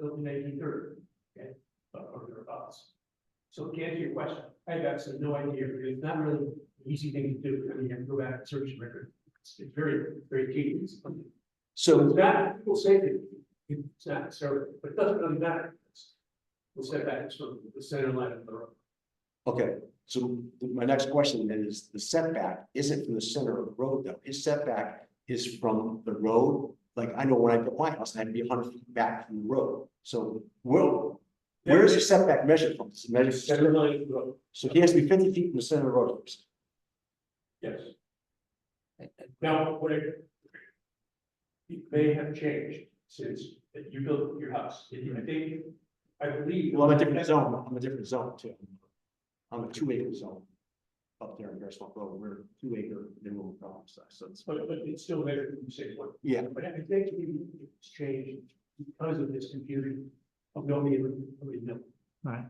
built in nineteen thirty, okay, or thereabouts. So to answer your question, I have absolutely no idea, because it's not really an easy thing to do, I mean, you have to go back and search the record. It's it's very, very tedious. So So, it's not, people say that it's not necessarily, but it doesn't really matter. The setback is from the center line of the road. okay, so my next question then is the setback isn't from the center of the road though. His setback is from the road. Like I know when I put my house, I had to be hundred feet back from the road. So where, where is the setback measured from? Is it measured- Center line of the road, So he has to be fifty feet from the center of the road. yes. Now, what I. It may have changed since that you built your house, and I think, I believe. Well, I'm a different zone, I'm a different zone too. I'm a two acre zone. Up there in Bearsville Road, we're two acre minimum problem size, so it's, But, but it's still there, you say, what, yeah, but I think it's changed because of this confusion of nobody, even- nobody knew. Right.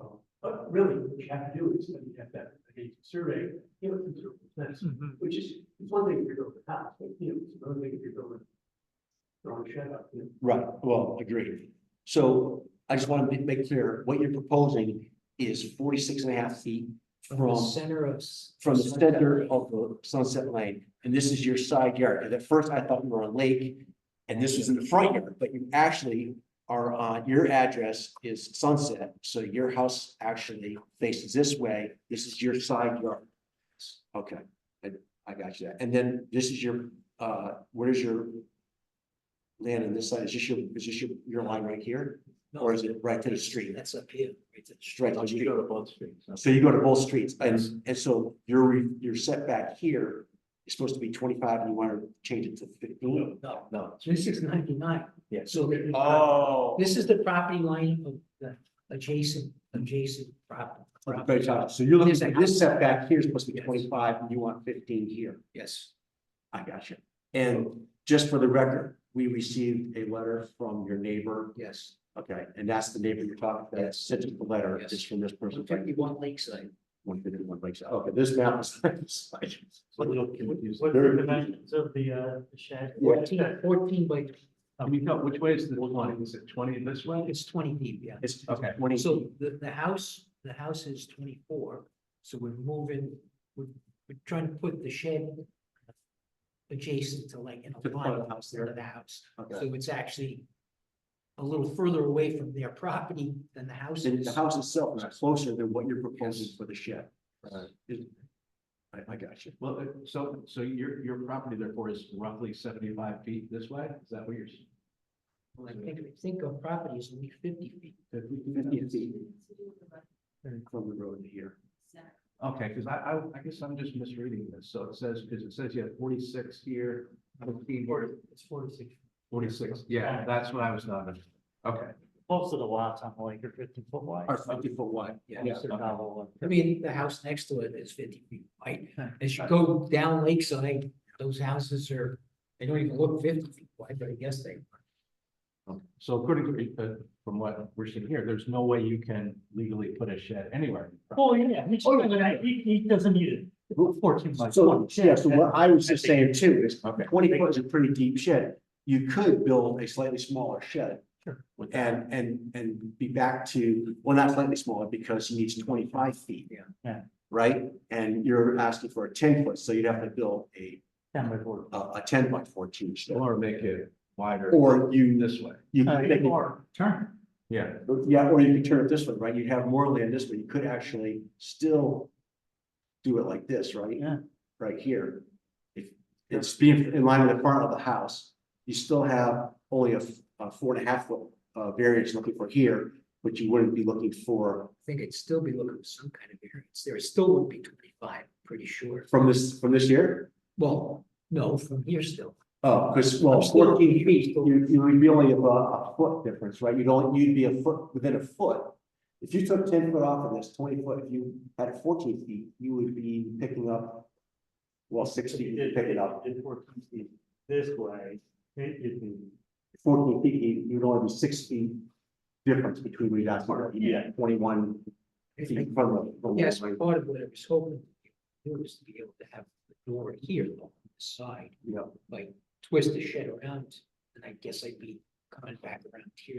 Uh, But really, what you have to do is, you have that, a survey, you know, it's a- that's- Mhm. which is, it's one thing if you're building a house, but, you know, it's another thing if you're building. Throwing shed up, you know. right, well, agreed. So I just want to make clear, what you're proposing is 46 and a half feet From the from, center of. s- from the Sunset center Lane. of the Sunset Lane. And this is your side yard, 'Cause at first I thought you were on Lake, and this was in the front yard, but you actually are on, your address is Sunset, so your house actually faces this way, this is your side yard. Okay, and I got you, and then this is your, uh, where's your land on this side, is this your, is this your, your line right here, or is it right to the street? That's up here. right to the street. Right to the street. go to both streets. So you go to both streets and, and so your, re- your setback here is supposed to be twenty-five and you want to change it to fifteen? No, No. this is ninety-nine. Yeah. So the- Oh. this is the property line of the adjacent, adjacent prop- property. Very tight. So you're looking, There's a for this house. setback here is supposed to be Yes. twenty-five and you want fifteen here. Yes. I got you. And just for the record, we received a letter from your neighbor. Yes. Okay, and that's the neighbor you're talking, that sent us the letter, Yes. is from this person. One fifty-one Lakeside. One fifty-one Lakeside. Okay, this map is. it's a little confusing. What are the dimensions of the, uh, the shed? Fourteen, fourteen by, Can you tell, which way is the twenty, is it twenty this well, way? it's twenty deep, yeah. It's Okay. twenty. So the, the house, the house is twenty-four, so we're moving, we're, we're trying to put the shed adjacent to like in To a the front line of the of house there. the house. Okay. So it's actually a little further away from their property than the house And is. the house itself is closer than what you're proposing for the shed. Right. Is- I, I got you. Well, uh, so, so your, your property therefore is roughly seventy-five feet this way, is that what you're? s- I think, I think our property is only fifty feet. did we do that? Fifty feet from the road to here. Okay, because I, I, I guess I'm just misreading this, so it says, because it says you have forty-six here, 15 here, It's forty-six. forty-six, yeah, that's what I was not, under- okay. Most of the lots on the lake are fifty foot wide. Or fifty foot wide, yeah. Most are okay. novel. I mean, the house next to it is fifty feet wide. As you go down Lakeside, those houses are, they don't even look fifty feet wide, but I guess they are. So according to, uh, from what we're seeing here, there's no way you can legally put a shed anywhere. Oh, yeah, he's- Oh, yeah. he, he doesn't need it. Fourteen by So, yeah, so what I was just saying too is Okay. twenty foot is a pretty deep shed. You could build a slightly smaller shed. With that. And, and, and be back to, well, not slightly smaller because he needs twenty-five feet. Yeah. Yeah. Right? And you're asking for a ten foot, so you'd have to build a, Down by board. a, a ten by fourteen shed. Or make it wider. Or you, This way. you Uh, could make it or turn. Yeah. Yeah, or you could turn it this way, right? You'd have more land this way. You could actually still do it like this, right? Yeah. Right here. If it's being in line with the front of the house, you still have only a, f- a four and a half foot uh variance looking for here, but you wouldn't be looking for I think I'd still be looking for some kind of variance. There still would be twenty-five, pretty sure. from this, from this year. Well, no, from here still. Oh, because well, I'm still- fourteen feet, you you would be only about a foot difference, right? You'd only, you'd be a foot within a foot. If you took ten foot off of this, twenty foot, if you had it fourteen feet, you would be picking up. Well, six feet, you'd pick it up, If fourteen feet this way, it, would be. fourteen feet, you- you'd only be six feet. Difference between where that's where you'd be at twenty-one I feet think- from the- from the. Yes, part of what I was hoping to do is to be able to have the door here on the side, Yeah. like twist the shed around. And I guess I'd be coming back around here